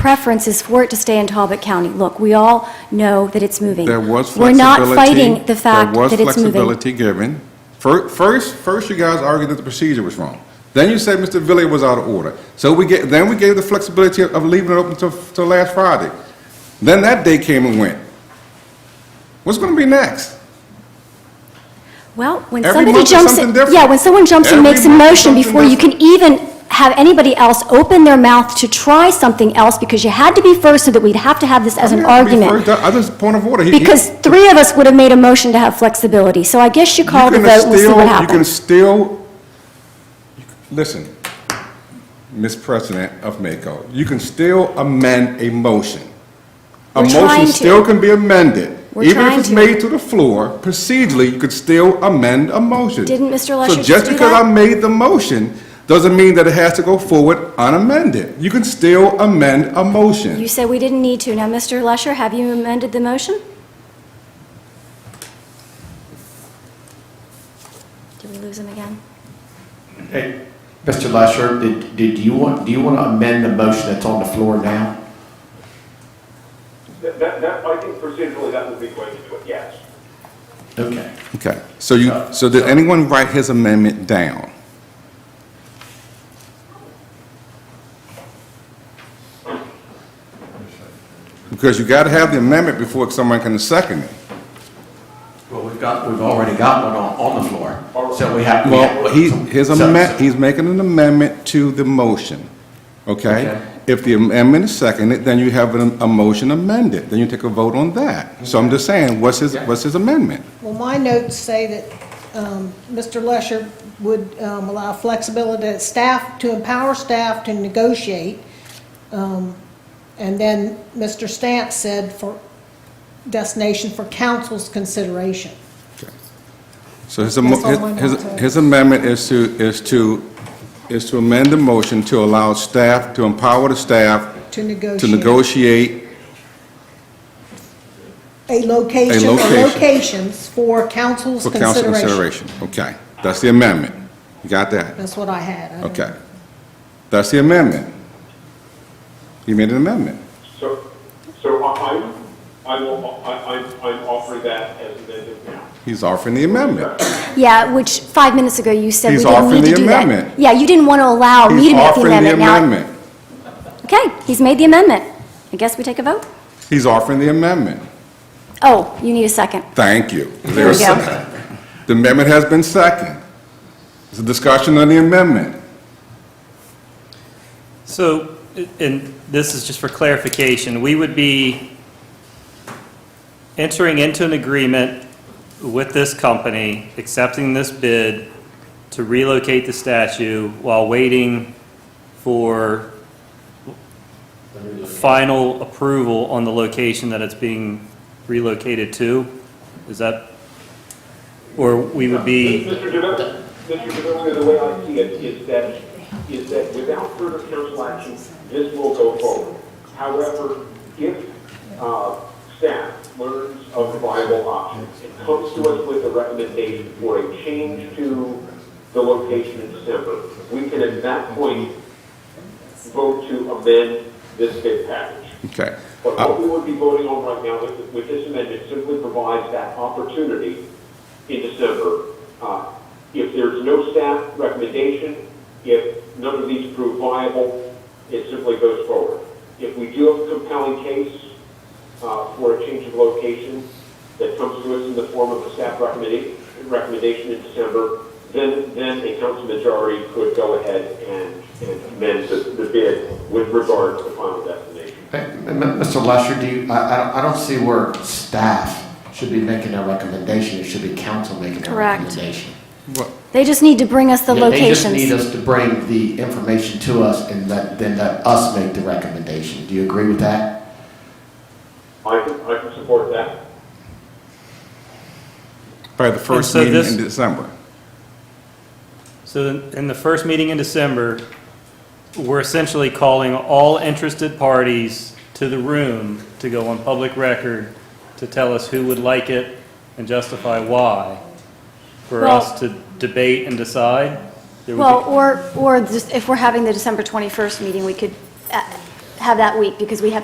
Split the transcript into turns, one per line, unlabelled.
preference is for it to stay in Talbot County. Look, we all know that it's moving.
There was
We're
flexibility.
not fighting the fact that
There was
it's moving.
flexibility given. Fir- First, first you guys argued that the procedure was wrong. Then you said Mr. Villiers was out of order. So we get, then we gave the flexibility of of leaving it open till, till last Friday. Then that day came and went. What's going to be next?
Well, when
Every
somebody
month is
jumps,
something
in-
different.
yeah, when someone jumps and
Every
makes a
month is
motion
something
before you can even have anybody else open their mouth to try something else, because you had to be first so that we'd have to have this as an
I mean,
argument.
first, I I just, point of order. He- he-
Because three of us would have made a motion to have flexibility, so I guess you
you
called the
can
vote, and we'll see
still-
what
You can
happens.
still, listen, Ms. President of Mako, you can still amend a motion. A
We're trying
motion
to.
still can be amended.
We're
Even
trying
if it's
to.
made to the floor, procedurally, you could still amend a motion.
Didn't Mr. Lesher
So
just
just
do
because
that?
I made the motion, doesn't mean that it has to go forward unamended. You can still amend a motion.
You said we didn't need to. Now, Mr. Lesher, have you amended the motion? Did we lose him again?
Hey, Mr. Lesher, did, did you want, do you want to amend the motion that's on the floor now?
That, that, that- I think procedurally, that would be going to do it, yes.
Okay.
Okay, so you, so did anyone write his amendment down? Because you gotta have the amendment before someone can second it.
Well, we've got, we've already got one on, on the floor, so we have. we have-
Well, he, his
so-
amendment, he's making an amendment to the motion,
Okay.
okay? If the amendment is seconded, then you have an- a motion amended, then you take a vote on that. So I'm just saying, what's his, what's his amendment?
Well, my notes say that um, Mr. Lesher would um, allow flexibility to staff, to empower staff to negotiate. Um, And then Mr. Stant said for destination for council's consideration.
So his, amo-
That's all I
his,
want to-
his amendment is to, is to, is to amend the motion to allow staff, to empower the staff
To
to
negotiate.
negotiate
A
A
location or
location.
locations for council's
for council consideration.
consideration.
Okay, that's the amendment. You got that?
That's what I had. I don't-
Okay. That's the amendment. He made an amendment.
So, so I, I, I will, I, I, I'm offering that as amended now.
He's offering the amendment.
Yeah, which, five minutes ago, you said we
He's
didn't
offering
need to
the
do that.
amendment.
Yeah, you didn't want to allow me
He's
to make the
offering the
amendment. Now-
amendment.
Okay, he's made the amendment. I guess we take a vote?
He's offering the amendment.
Oh, you need a second.
Thank you.
There we
There's
go.
second. The amendment has been seconded. It's a discussion on the amendment.
So, and this is just for clarification, we would be entering into an agreement with this company, accepting this bid to relocate the statue while waiting for final approval on the location that it's being relocated to? Is that, or we would be?
Mr. Devine, Mr. Devine, the way I see it is that, is that without further council action, this will go forward. However, if, uh, staff learns of viable options and comes to us with a recommendation for a change to the location in December, we can at that point vote to amend this bid package.
Okay.
But
Uh,
what we would be voting on right now with, with this amendment simply provides that opportunity in December. Uh, If there's no staff recommendation, if none of these prove viable, it simply goes forward. If we do have a compelling case uh, for a change of location that comes to us in the form of a staff recommendation, recommendation in December, then, then a council majority could go ahead and and amend the the bid with regard to the final destination.
Hey, M- M- Mr. Lesher, do you, I, I don't, I don't see where staff should be making a recommendation, it should be council making a
Correct.
recommendation.
They just need to bring us the
Yeah, They just need
locations.
us to bring the information to us and let, then let us make the recommendation. Do you agree with that?
I can, I can support that.
By the first
so
meeting
this-
in December.
So in- in the first meeting in December, we're essentially calling all interested parties to the room to go on public record to tell us who would like it and justify why, for
Well-
us to debate and decide? There would be-
Well, or, or just if we're having the December 21st meeting, we could uh, have that week because we have